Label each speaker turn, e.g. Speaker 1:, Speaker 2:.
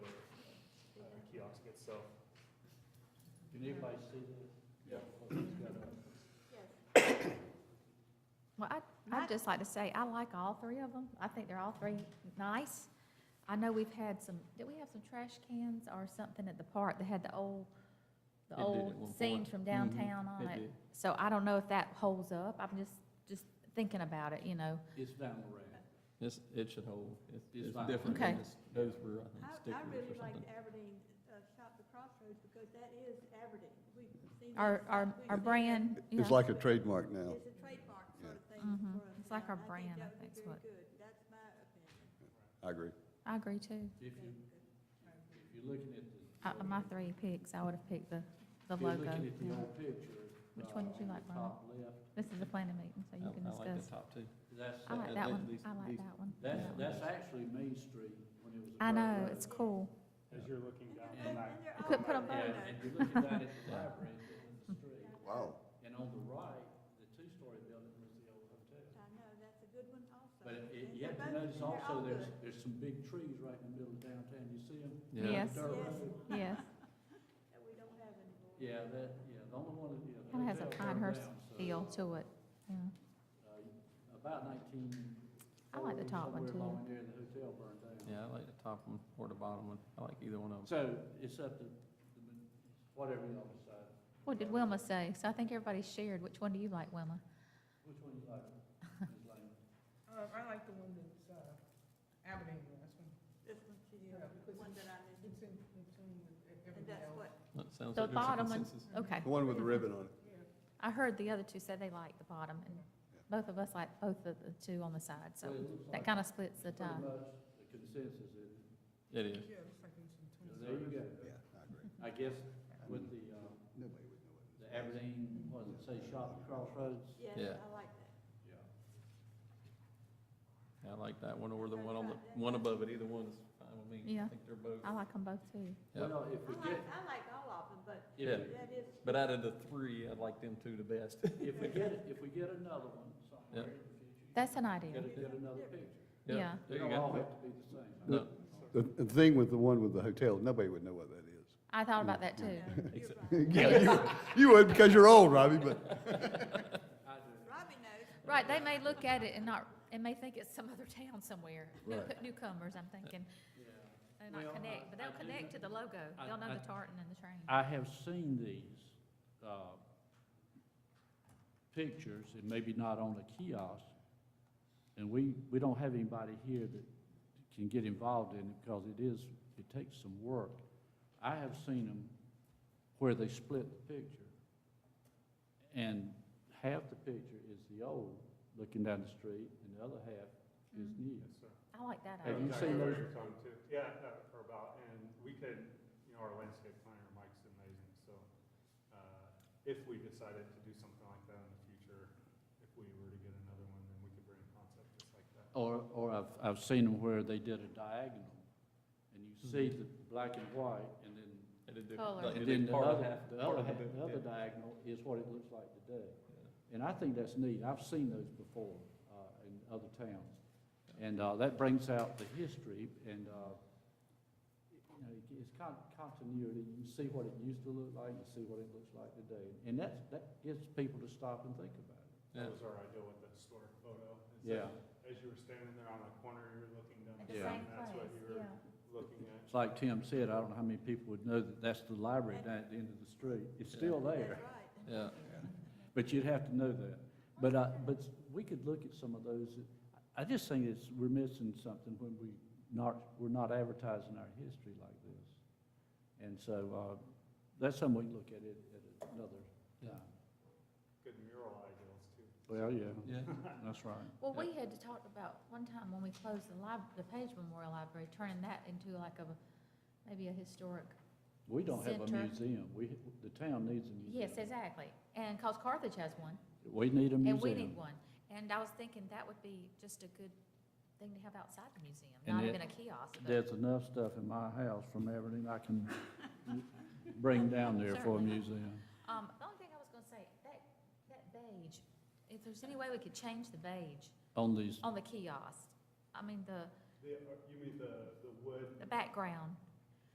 Speaker 1: itself.
Speaker 2: Did anybody see that?
Speaker 1: Yeah.
Speaker 3: Yes.
Speaker 4: Well, I, I'd just like to say, I like all three of them. I think they're all three nice. I know we've had some, did we have some trash cans or something at the park that had the old,
Speaker 2: It
Speaker 4: the
Speaker 2: did at
Speaker 4: old
Speaker 2: one
Speaker 4: scenes
Speaker 2: point.
Speaker 4: from
Speaker 2: Mhm,
Speaker 4: downtown on
Speaker 2: it
Speaker 4: it?
Speaker 2: did.
Speaker 4: So I don't know if that holds up. I'm just, just thinking about it, you know.
Speaker 2: It's down the road.
Speaker 5: It's, it should hold. It's,
Speaker 2: It's
Speaker 5: it's
Speaker 2: fine.
Speaker 5: different
Speaker 4: Okay.
Speaker 5: than this- those were, I
Speaker 3: I,
Speaker 5: think,
Speaker 3: I
Speaker 5: stickers
Speaker 3: really
Speaker 5: or
Speaker 3: like
Speaker 5: something.
Speaker 3: the Aberdeen, uh, shop the crossroads because that is Aberdeen. We've seen. that
Speaker 4: Our,
Speaker 3: shop.
Speaker 4: our,
Speaker 3: We've
Speaker 4: our
Speaker 3: seen
Speaker 4: brand, yeah.
Speaker 6: It's like a trademark now.
Speaker 3: that. It's a trademark sort of thing
Speaker 4: Mhm.
Speaker 3: for us.
Speaker 4: It's like
Speaker 3: and
Speaker 4: our brand, I
Speaker 3: think
Speaker 4: think's
Speaker 3: that
Speaker 4: what-
Speaker 3: would be very good. That's my opinion.
Speaker 6: I agree.
Speaker 4: I agree too.
Speaker 2: If you, if you're looking at the.
Speaker 4: Uh, my three picks, I would have picked the, the
Speaker 2: If you're
Speaker 4: logo.
Speaker 2: looking at the
Speaker 4: yeah.
Speaker 2: old picture.
Speaker 4: Which
Speaker 2: uh,
Speaker 4: one did you
Speaker 2: on the
Speaker 4: like, Brian?
Speaker 2: Top left,
Speaker 4: This is a planning meeting, so you
Speaker 5: I-
Speaker 4: can
Speaker 5: I like the
Speaker 4: discuss.
Speaker 5: top two.
Speaker 2: that's,
Speaker 4: I like
Speaker 5: uh,
Speaker 4: that
Speaker 5: uh,
Speaker 4: one.
Speaker 5: these-
Speaker 4: I like
Speaker 5: these-
Speaker 4: that one.
Speaker 2: that's,
Speaker 4: Yeah.
Speaker 2: that's actually Main Street when it was. a
Speaker 4: I
Speaker 2: dirt
Speaker 4: know,
Speaker 2: road.
Speaker 4: it's cool.
Speaker 1: As you're looking down
Speaker 3: And
Speaker 1: from
Speaker 3: they're- and they're
Speaker 1: that.
Speaker 4: I couldn't
Speaker 3: all
Speaker 4: put 'em
Speaker 2: Yeah,
Speaker 4: both.
Speaker 3: right there.
Speaker 2: and you're looking down at the library, in the street,
Speaker 6: Wow.
Speaker 2: and on the right, the two-story building was the old hotel.
Speaker 3: I know, that's a good one also.
Speaker 2: But it- it-
Speaker 3: And
Speaker 2: you have to
Speaker 3: they're
Speaker 2: notice
Speaker 3: both- and they're all
Speaker 2: also, there's,
Speaker 3: good.
Speaker 2: there's some big trees right in the middle of downtown, you see them?
Speaker 5: Yeah.
Speaker 4: Yes.
Speaker 2: Dirt road.
Speaker 4: Yes,
Speaker 3: Yes. That we don't have anymore.
Speaker 2: Yeah, that, yeah, the only one, that- yeah. the
Speaker 4: Kinda has a
Speaker 2: hotel
Speaker 4: Pinehurst
Speaker 2: burned down, so,
Speaker 4: feel to it, yeah.
Speaker 2: uh, About nineteen.
Speaker 4: I like the top one,
Speaker 2: Somewhere
Speaker 4: too.
Speaker 2: along there, the hotel burned down.
Speaker 5: Yeah, I like the top one or the bottom one. I like either one of them.
Speaker 2: So it's up to, the min- whatever y'all decide.
Speaker 4: What did Wilma say? So I think everybody shared. Which one do you like, Wilma?
Speaker 2: Which one you like? Ms. Lane?
Speaker 7: Uh, I like the one that's, uh, Aberdeen, that's one,
Speaker 3: This one, she did,
Speaker 7: Yeah, because
Speaker 3: the one that I mentioned.
Speaker 7: it's in between with e-
Speaker 3: And
Speaker 7: everything
Speaker 3: that's what,
Speaker 7: else.
Speaker 5: That sounds
Speaker 4: The
Speaker 5: like there's a
Speaker 4: bottom one.
Speaker 5: consensus.
Speaker 4: Okay.
Speaker 6: The one with the ribbon on it.
Speaker 7: Yeah,
Speaker 4: I heard the other two said they liked the bottom, and both of us like both of the two on the side, so
Speaker 2: Well, it looks like
Speaker 4: that kind of splits the
Speaker 2: Pretty
Speaker 4: time.
Speaker 2: much the consensus is,
Speaker 5: It is.
Speaker 7: yeah, it looks like it's in
Speaker 2: so
Speaker 7: between.
Speaker 2: there you go.
Speaker 6: Yeah, I agree.
Speaker 2: I guess with the, uh,
Speaker 6: Nobody would know it.
Speaker 2: the Aberdeen, what does it say, shop at crossroads?
Speaker 3: yes,
Speaker 5: Yeah.
Speaker 3: I like that.
Speaker 2: Yeah.
Speaker 5: I like that one or the one on the, one above it. Either one is fine with me.
Speaker 4: Yeah.
Speaker 5: I think they're both.
Speaker 4: I like them both too.
Speaker 5: Yeah.
Speaker 2: Well, if
Speaker 3: I
Speaker 2: we get,
Speaker 3: like, I like all of them, but
Speaker 5: Yeah.
Speaker 2: if,
Speaker 3: that is,
Speaker 5: But out of the three, I like them two the best.
Speaker 2: we- if we get, if we get another one somewhere in the future,
Speaker 4: That's an idea.
Speaker 2: gotta get another picture.
Speaker 4: Yeah.
Speaker 5: There
Speaker 2: They
Speaker 5: you
Speaker 2: don't all
Speaker 5: go.
Speaker 2: have to be the same.
Speaker 5: No,
Speaker 6: The, the thing with the one with the hotel, nobody would know what that is.
Speaker 4: I thought about that
Speaker 3: you
Speaker 4: too.
Speaker 3: know, you're
Speaker 5: Except-
Speaker 3: right.
Speaker 6: Yeah, you- You would because you're old, Robbie, but
Speaker 2: I do.
Speaker 3: Robbie knows.
Speaker 4: Right, they may look at it and not, and may think it's some other town somewhere. New-
Speaker 6: Right.
Speaker 4: Newcomers, I'm thinking,
Speaker 2: Yeah.
Speaker 4: and
Speaker 2: Well,
Speaker 4: not
Speaker 2: I-
Speaker 4: connect, but
Speaker 2: I
Speaker 4: they'll
Speaker 2: do
Speaker 4: connect to the logo.
Speaker 2: I-
Speaker 4: They'll know
Speaker 2: I-
Speaker 4: the tartan and the train.
Speaker 2: I have seen these, uh, pictures, and maybe not on a kiosk, and we, we don't have anybody here that can get involved in it, because it is, it takes some work. I have seen them where they split the picture, and half the picture is the old, looking down the street, and the other half is
Speaker 4: Mhm.
Speaker 2: new.
Speaker 1: Yes, sir.
Speaker 4: I like that
Speaker 2: Have
Speaker 1: That's
Speaker 2: you
Speaker 4: idea.
Speaker 2: seen
Speaker 1: exactly what
Speaker 2: those?
Speaker 1: you're talking to. Yeah, uh, or about, and we could, you know, our landscape planner, Mike's amazing, so, uh, if we decided to do something like that in the future, if we were to get another one, then we could bring a concept just like that.
Speaker 2: Or, or I've, I've seen them where they did a diagonal, and you see the black and white, and then
Speaker 5: They did do-
Speaker 4: Color.
Speaker 5: like, they
Speaker 2: And
Speaker 5: did
Speaker 2: then the
Speaker 5: part of
Speaker 2: other,
Speaker 5: half-
Speaker 2: the
Speaker 5: part
Speaker 2: other,
Speaker 5: of
Speaker 2: half-
Speaker 5: bit,
Speaker 2: the other
Speaker 5: yeah.
Speaker 2: diagonal is what it looks like today. And I think that's neat. I've seen those before, uh, in other towns. And, uh, that brings out the history and, uh, you know, it- it's con- continuity. You see what it used to look like, you see what it looks like today. And that's, that gets people to stop and think about it.
Speaker 5: Yeah.
Speaker 1: That was our idea with the historic photo. It's
Speaker 2: Yeah.
Speaker 1: like, As you were standing there on the corner, you were looking down.
Speaker 4: At
Speaker 2: the
Speaker 4: the
Speaker 2: Yeah.
Speaker 4: same
Speaker 2: same
Speaker 1: That's what
Speaker 4: place,
Speaker 1: you
Speaker 4: yeah.
Speaker 1: were looking at.
Speaker 2: It's like Tim said, I don't know how many people would know that that's the library down at the end of the street. It's still there.
Speaker 3: That's right.
Speaker 5: Yeah.
Speaker 2: But you'd have to know that. But, uh, but we could look at some of those. I just think it's, we're missing something when we not, we're not advertising our history like this. And so, uh, that's something we can look at it at another time.
Speaker 1: Good mural ideals too.
Speaker 2: Well, yeah,
Speaker 5: Yeah.
Speaker 2: that's right.
Speaker 4: Well, we had talked about one time when we closed the lib, the Page Memorial Library, turning that into like a, maybe a historic.
Speaker 2: We don't have a
Speaker 4: Center.
Speaker 2: museum. We, the town needs a museum.
Speaker 4: Yes, exactly. And, cause Carthage has one,
Speaker 2: We need a museum.
Speaker 4: and we need one. And I was thinking that would be just a good thing to have outside the museum,
Speaker 2: And
Speaker 4: not
Speaker 2: it-
Speaker 4: even a kiosk, but.
Speaker 2: There's enough stuff in my house from Aberdeen I can bring down there for a
Speaker 4: Certainly.
Speaker 2: museum.
Speaker 4: Um, the only thing I was gonna say, that, that beige, if there's any way we could change the beige
Speaker 2: On these,
Speaker 4: on the kiosk, I mean, the,
Speaker 1: The, uh, you mean the, the wood?
Speaker 4: the background,